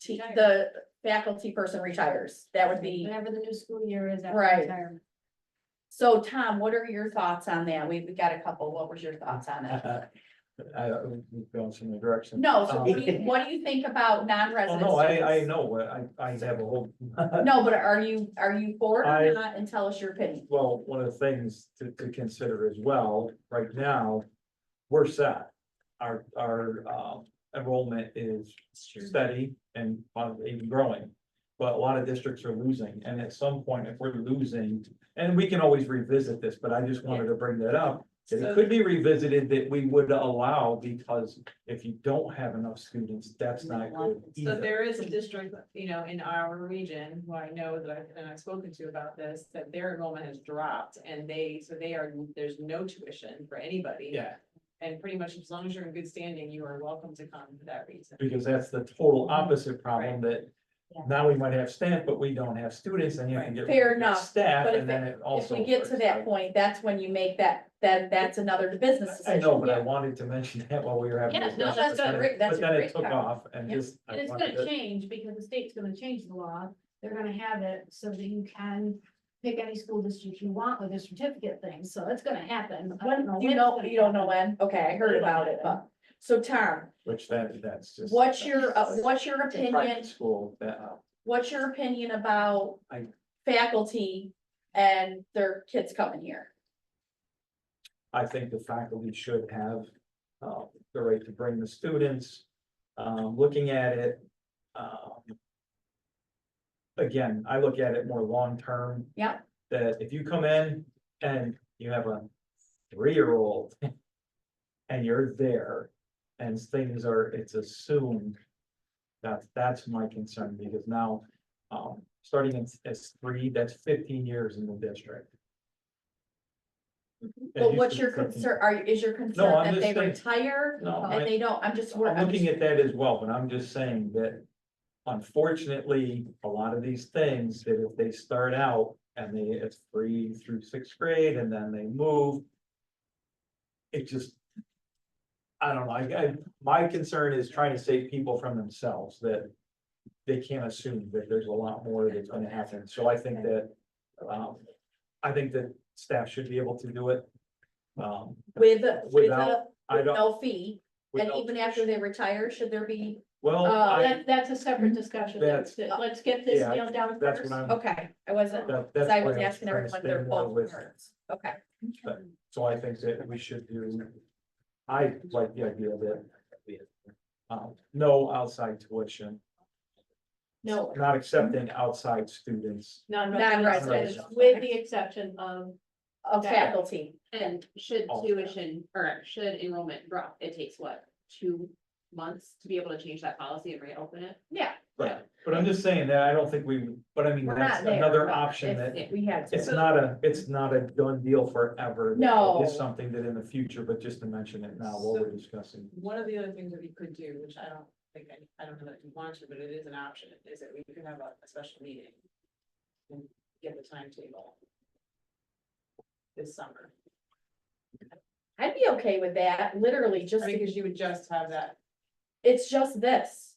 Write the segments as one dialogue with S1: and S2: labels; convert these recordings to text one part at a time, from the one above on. S1: te- the faculty person retires, that would be.
S2: Whenever the new school year is after
S1: Right.
S2: retirement.
S1: So Tom, what are your thoughts on that? We, we got a couple, what was your thoughts on it?
S3: I, we've gone some direction.
S1: No, so what do you,
S3: Um,
S1: what do you think about
S3: Well,
S1: non-resident?
S3: no, I, I
S1: students?
S3: know, what- I, I have a whole,
S1: No, but are you, are you for it
S3: I-
S1: or not? And tell us your opinion.
S3: well, one of the things to, to consider as well, right now, we're set. Our, our, um, enrollment is steady and uh, even growing. But a lot of districts are losing, and at some point, if we're losing, and we can always revisit this, but I just wanted to bring that up. that It could be revisited that we would allow, because if you don't have enough students, that's not good
S4: So
S3: either.
S4: there is a district, you know, in our region, who I know that I've, and I've spoken to about this, that their enrollment has dropped and they, so they are, there's no tuition for anybody.
S3: Yeah,
S4: And pretty much as long as you're in good standing, you are welcome to come for that reason.
S3: because that's the total opposite problem that
S2: Yeah.
S3: now we might have staff, but we don't have students, and you can get.
S1: Fair enough,
S3: Staff,
S1: but if
S3: and then it
S1: If
S3: also.
S1: we get to
S3: works
S1: that
S3: out.
S1: point, that's when you make that, that, that's another business
S3: I
S1: decision.
S3: know, but I wanted to mention that while we were having.
S2: Yeah,
S3: this
S2: no,
S3: discussion,
S1: that's a
S3: but then-
S1: great- that's
S3: but
S1: a
S3: then it
S1: great
S3: Took
S1: comment.
S3: off and
S1: Yeah.
S3: just. I
S2: And it's
S3: wanted
S2: gonna
S3: to-
S2: change because the state's gonna change the law. They're gonna have it so that you can pick any school district you want with a certificate thing. So it's gonna happen. Uh, I don't
S1: When, you
S2: it's
S1: know,
S2: gonna
S1: you don't know
S2: happen.
S1: when? Okay, I heard about it, but, so Tom,
S3: Which that, that's just.
S1: what's your, uh, what's your
S3: It's a private
S1: opinion,
S3: School that, uh,
S1: what's your opinion about
S3: I-
S1: faculty and their kids coming here?
S3: I think the faculty should have, uh, the right to bring the students, um, looking at it, um. Again, I look at it more long-term.
S1: Yeah.
S3: That if you come in and you have a three-year-old and you're there and things are, it's assumed. That's, that's my concern because now, um, starting in S three, that's fifteen years in the district. It
S1: But
S3: used
S1: what's
S3: to be
S1: your
S3: 13.
S1: concern, are, is your
S3: No,
S1: concern
S3: I'm
S1: that
S3: just
S1: they
S3: saying-
S1: retire
S3: No, I-
S1: and they don't, I'm just.
S3: I'm
S1: I'm
S3: looking
S1: just-
S3: at that as well, but I'm just saying that unfortunately, a lot of these things, that if they start out and they, it's free through sixth grade and then they move. It just. I don't know, I, I, my concern is trying to save people from themselves that. They can't assume that there's a lot more that's gonna happen, so I think that, um, I think that staff should be able to do it. Um,
S1: With, a- with a,
S3: Without- I
S1: with
S3: don't.
S1: no fee, and
S3: without-
S1: even after they retire, should there be,
S3: Well,
S1: uh,
S3: I,
S2: That, that's a separate discussion.
S3: That's-
S2: Let's get this
S3: Yeah,
S2: nailed down
S3: that's
S2: first.
S3: what I'm.
S1: okay, I wasn't,
S3: Uh-huh. That,
S1: cause
S3: that's.
S1: I
S3: why
S1: was
S3: I'm
S1: asking
S3: trying to
S1: everyone
S3: stay
S1: their
S3: more
S1: both
S3: with-
S1: parents, okay.
S3: So I think that we should do, I like the idea that. Um, no outside tuition,
S2: No,
S3: not accepting outside students.
S2: non-residents,
S1: Non-residents.
S2: with the exception of
S1: Of
S2: Yeah.
S1: faculty,
S5: And should
S3: All.
S5: tuition or should enrollment drop, it takes what, two months to be able to change that policy and reopen it?
S3: Right, but I'm just saying that I don't think we, but I mean,
S1: we're not
S3: that's
S1: there.
S3: another
S1: but
S3: option
S1: if
S3: that,
S1: We had
S3: it's
S1: to,
S3: not a, it's not a done deal forever.
S1: No.
S3: It's something that in the future, but just to mention it now while we're discussing.
S4: One of the other things that we could do, which I don't think, I, I don't know that you want to, but it is an option, is that we could have a, a special meeting. And get the timetable. This summer,
S1: I'd be okay with that, literally, just to
S4: because you would just have that,
S1: It's just this.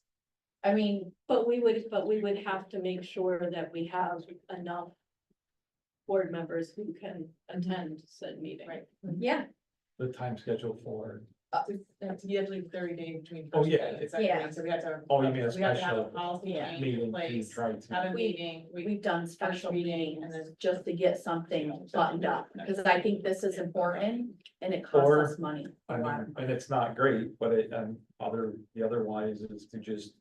S1: I mean,
S6: But we would, but we would have to make sure that we have enough board members who can attend said meeting.
S4: Right.
S1: yeah,
S3: The time schedule for,
S4: you have to leave thirty days between.
S3: Oh,
S4: first
S3: yeah.
S4: and second
S1: Yeah.
S4: reading, So we have to. have-
S3: Oh, you mean a
S4: we have to have
S3: special
S4: Policy
S3: meeting
S4: in
S3: to
S4: place,
S3: try to-
S4: have a
S1: We-
S4: meeting, we,
S1: we've done special
S4: meeting and
S1: meetings
S4: then-
S1: just to get something buttoned up, because I think this is important and it costs
S3: Or-
S1: us money.
S3: I mean, and it's not great, but it, um, other, the other wise is to just.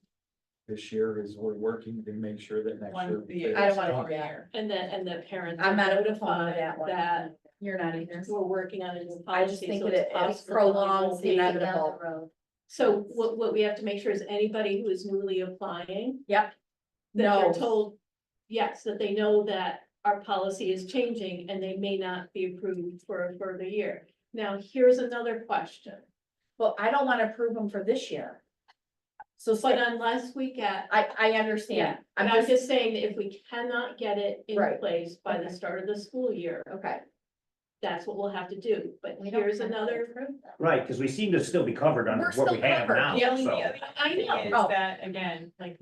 S3: This year is we're working to make sure that next
S4: one,
S3: year.
S4: the.
S1: I don't wanna do
S4: every
S1: that.
S4: year.
S6: And then, and the parents.
S1: I'm not
S6: are
S1: a good fan of
S6: notified
S1: that one.
S6: That
S1: You're not either.
S6: we're working on a new
S1: I
S6: policy.
S1: just think
S6: so
S1: that
S6: it's
S1: it- it
S6: possible that we
S1: prolongs
S6: won't
S1: the
S6: be down
S1: inevitable.
S6: the road. So what, what we have to make sure is anybody who is newly applying, that they're
S1: No,
S6: told, yes, that they know that our policy is changing and they may not be approved for a further year. Now, here's another question.
S1: well, I don't wanna approve them for this year. So it's
S6: But
S1: like,
S6: unless we get,
S1: I, I
S6: yeah,
S1: understand.
S6: and
S1: I'm
S6: I'm
S1: just,
S6: just saying, that if we cannot get it in
S1: Right.
S6: place by the
S1: Okay.
S6: start of the school year,
S1: okay.
S6: that's what we'll have to do. But
S1: We don't
S6: here's
S1: have to
S6: another,
S1: approve them.
S7: Right, because we seem to still be covered under
S1: We're
S7: what
S1: still
S7: we have
S1: covered,
S7: now,
S4: The only,
S7: so.
S4: the other
S6: I
S4: thing
S6: know.
S4: is
S1: Oh.
S4: that, again, like,